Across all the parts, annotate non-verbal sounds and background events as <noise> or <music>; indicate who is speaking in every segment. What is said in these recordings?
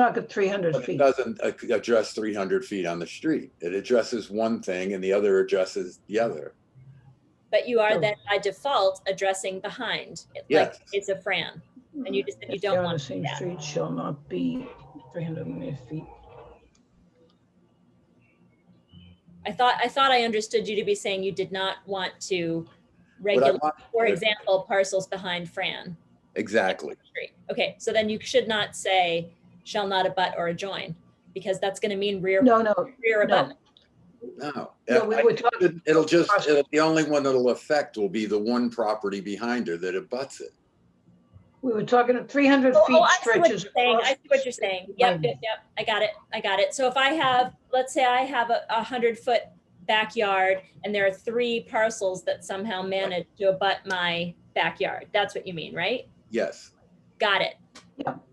Speaker 1: talk of 300
Speaker 2: But it
Speaker 1: feet.
Speaker 2: doesn't a- address three hundred feet on the street. It addresses one thing and the other addresses the other.
Speaker 3: But you
Speaker 1: No.
Speaker 3: are then by default addressing behind, like
Speaker 2: Yes.
Speaker 3: it's a Fran, and you just, said you
Speaker 1: If they are
Speaker 3: don't
Speaker 1: on the
Speaker 3: want to do
Speaker 1: same
Speaker 3: that.
Speaker 1: street shall not be 300 feet.
Speaker 3: I thought, I thought I understood you to be saying you did not want to
Speaker 2: What I
Speaker 3: regulate,
Speaker 2: want-
Speaker 3: for example, parcels behind Fran.
Speaker 2: Exactly.
Speaker 3: Street. Okay, so then you should not say shall not abut or adjoin, because that's gonna mean rear,
Speaker 1: No, no,
Speaker 3: rear
Speaker 1: no.
Speaker 3: abutment.
Speaker 2: No.
Speaker 1: no, we were talking,
Speaker 2: It- It'll just, it'll- the only one that'll affect will be the one property behind her that abuts it.
Speaker 1: we were talking of 300
Speaker 3: Oh,
Speaker 1: feet
Speaker 3: oh, I see what you're
Speaker 1: stretches.
Speaker 3: saying,
Speaker 1: across
Speaker 3: I see
Speaker 1: the
Speaker 3: what you're
Speaker 1: street
Speaker 3: saying, yep,
Speaker 1: line.
Speaker 3: yep, yep, I got it, I got it. So if I have, let's say I have a, a hundred foot backyard, and there are three parcels that somehow manage to abut my backyard, that's what you mean, right?
Speaker 2: Yes.
Speaker 3: Got it,
Speaker 1: But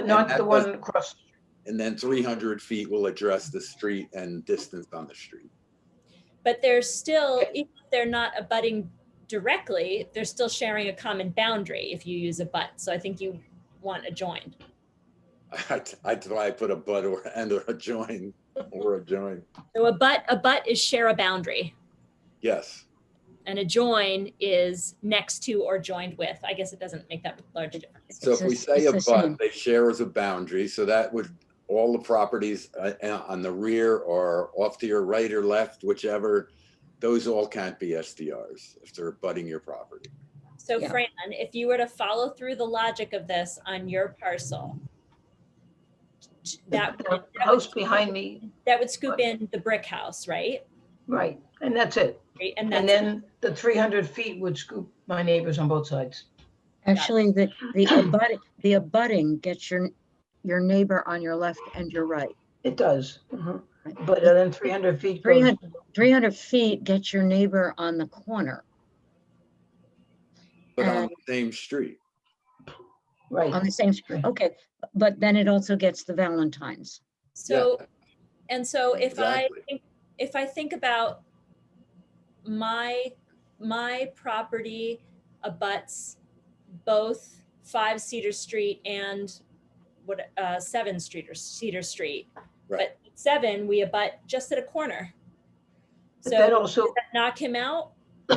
Speaker 2: And
Speaker 1: not
Speaker 2: that
Speaker 1: the one across.
Speaker 2: And then three hundred feet will address the street and distance on the street. <laughs>
Speaker 3: but they're still, even if they're not abutting directly, they're still sharing a common boundary if you use a but, so I think you want adjoined.
Speaker 2: I, I, I put a but or, and or a join, or a join.
Speaker 3: So a butt, a butt is share a boundary,
Speaker 2: Yes.
Speaker 3: and a join is next to or joined with. I guess it doesn't make that large a difference.
Speaker 2: So if
Speaker 4: It's
Speaker 2: we
Speaker 4: a-
Speaker 2: say a
Speaker 4: it's a
Speaker 2: but,
Speaker 4: shame.
Speaker 2: they share as a boundary, so that would, all the properties uh, uh, on the rear or off to your right or left, whichever, those all can't be SDRs if they're abutting your property.
Speaker 3: So
Speaker 4: Yeah.
Speaker 3: Fran, if you were to follow through the logic of this on your parcel, that
Speaker 1: the
Speaker 3: would, that would,
Speaker 1: House behind me,
Speaker 3: that would scoop in the brick house, right?
Speaker 1: right, and that's it.
Speaker 3: Right, And
Speaker 1: And
Speaker 3: that's,
Speaker 1: then the 300 feet would scoop my neighbors on both sides.
Speaker 4: Actually, the, the abutting, the abutting gets your, your neighbor on your left and your right.
Speaker 1: It does. mhm.
Speaker 3: Mm-hmm.
Speaker 4: Right.
Speaker 1: But then 300 feet goes
Speaker 4: 300 300 feet gets your neighbor on the corner,
Speaker 2: But on
Speaker 4: Um,
Speaker 2: the same street,
Speaker 1: right.
Speaker 3: Um,
Speaker 4: on the same street.
Speaker 1: Right.
Speaker 4: Okay, but then it also gets the Valentines.
Speaker 3: so, and so if I
Speaker 2: Exactly.
Speaker 3: think, if I think about my, my property abuts both five Cedar Street and what, uh, seven Street or Cedar Street.
Speaker 2: Right.
Speaker 3: But seven, we abut just at a corner.
Speaker 1: But that
Speaker 3: So
Speaker 1: also,
Speaker 3: does that knock him out?
Speaker 1: <coughs>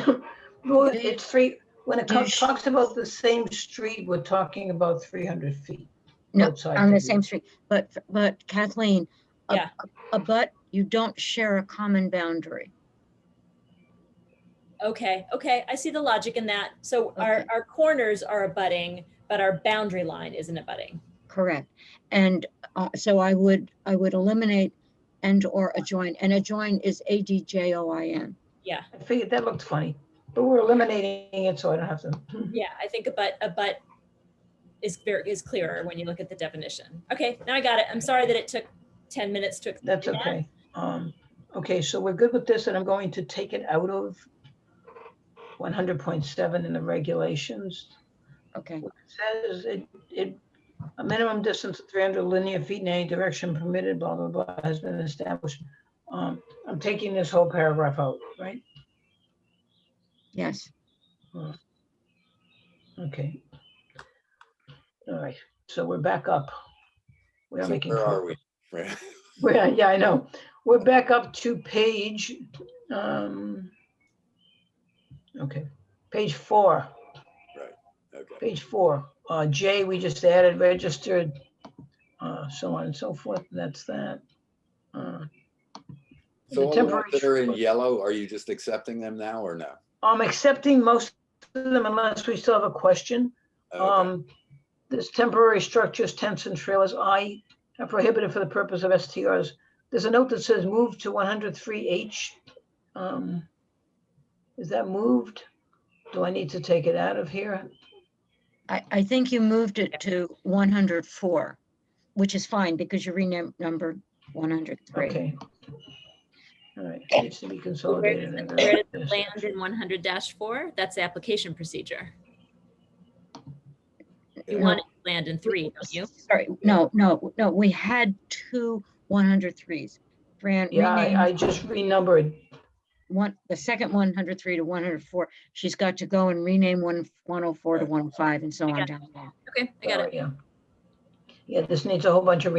Speaker 1: well, it's three, when it
Speaker 4: Do you
Speaker 1: comes,
Speaker 4: sh-
Speaker 1: talks about the same street, we're talking about 300 feet.
Speaker 4: No,
Speaker 1: both sides
Speaker 4: on the
Speaker 1: of you.
Speaker 4: same street, but, but Kathleen, a-
Speaker 3: Yeah.
Speaker 4: a but you don't share a common boundary.
Speaker 3: Okay, okay, I see the logic in that. So our,
Speaker 4: Okay.
Speaker 3: our corners are abutting, but our boundary line isn't abutting.
Speaker 4: Correct. And uh, so I would, I would eliminate and/or adjoin, and adjoin is A-D-J-O-I-N.
Speaker 3: Yeah,
Speaker 1: I figured that looked funny, but we're eliminating it, so I don't have to. <coughs>
Speaker 3: yeah, I think a but, a but is very, is clearer when you look at the definition. Okay, now I got it. I'm sorry that it took ten minutes to. explain
Speaker 1: That's
Speaker 3: that.
Speaker 1: okay. Um, okay, so we're good with this, and I'm going to take it out of one hundred point seven in the regulations.
Speaker 4: Okay,
Speaker 1: It Says it, it, a minimum distance of three hundred linear feet in any direction permitted, blah, blah, blah, has been established. Um, I'm taking this whole paragraph out, right?
Speaker 4: yes.
Speaker 1: Okay. All right, so we're back up. We are
Speaker 2: So
Speaker 1: making.
Speaker 2: where
Speaker 1: progress.
Speaker 2: are we? <laughs> Right.
Speaker 1: <laughs> Well, yeah, I know. We're back up to page, um, okay, page four,
Speaker 2: Okay.
Speaker 1: page four. Uh, J, we just added registered, uh, so on and so forth. That's that. Uh,
Speaker 2: So all the ones
Speaker 1: temporary
Speaker 2: that are in
Speaker 1: shrub-
Speaker 2: yellow, are you just accepting them now or no?
Speaker 1: I'm accepting most of them unless we still have a question.
Speaker 2: Okay.
Speaker 1: Um, this temporary structures, tents and trailers, I are prohibited for the purpose of STRs. There's a note that says move to one hundred three H. Um, is that moved? Do I need to take it out of here?
Speaker 4: I, I think you moved it to 104, which is fine because you renamed number 103.
Speaker 1: Okay. All right, needs to be consolidated.
Speaker 3: does it-
Speaker 1: in
Speaker 3: where does
Speaker 1: this.
Speaker 3: Land in one hundred four, that's the application procedure. You
Speaker 2: Yeah.
Speaker 3: want it to land in three, don't you?
Speaker 4: Sorry, no, no, no, we had two 103s. Fran
Speaker 1: Yeah, I,
Speaker 4: renamed
Speaker 1: I just renumbered.
Speaker 4: one, the second 103 to 104. She's got to go and rename one 104 to 105 and so
Speaker 3: I
Speaker 4: on
Speaker 3: got
Speaker 4: down the line.
Speaker 3: Okay, I got it.
Speaker 1: Sorry, Yeah, Yeah, this needs a whole bunch of